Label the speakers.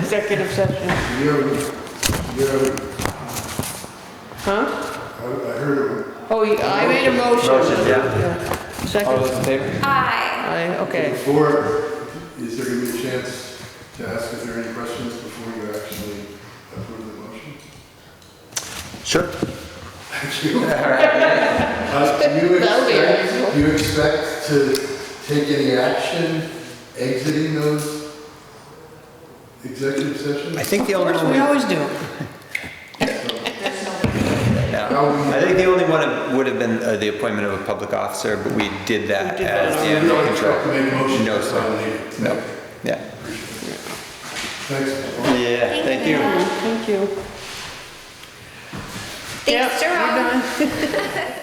Speaker 1: Executive session,
Speaker 2: You're, you're,
Speaker 1: huh?
Speaker 2: I I heard it.
Speaker 1: Oh, you- I made a motion.
Speaker 3: Motion, yeah.
Speaker 1: yeah.
Speaker 3: All
Speaker 1: Second,
Speaker 3: those in favor?
Speaker 4: Aye.
Speaker 1: I, okay.
Speaker 2: Before, is there gonna be a chance to ask if there are any questions before you actually approve the motion?
Speaker 3: Sure.
Speaker 2: Thank you.
Speaker 3: All right.
Speaker 2: Uh, Do you
Speaker 1: That'll be
Speaker 2: expect,
Speaker 1: unusual.
Speaker 2: do you expect to take any action exiting those executive
Speaker 3: I
Speaker 2: sessions?
Speaker 3: think the
Speaker 1: Of
Speaker 3: only
Speaker 1: course, we
Speaker 3: one,
Speaker 1: always do.
Speaker 3: no. I think the only one would have been uh, the appointment of a public officer, but we did that
Speaker 1: We did that.
Speaker 3: as the
Speaker 2: You
Speaker 3: animal
Speaker 2: don't expect to
Speaker 3: control.
Speaker 2: make a motion?
Speaker 3: No, sir.
Speaker 2: sir.
Speaker 3: No. Yeah.
Speaker 2: Thanks.
Speaker 3: Yeah,
Speaker 4: Thank you.
Speaker 1: Thank you.
Speaker 4: Thanks,
Speaker 1: Yep, we're
Speaker 4: Jerome.
Speaker 1: done.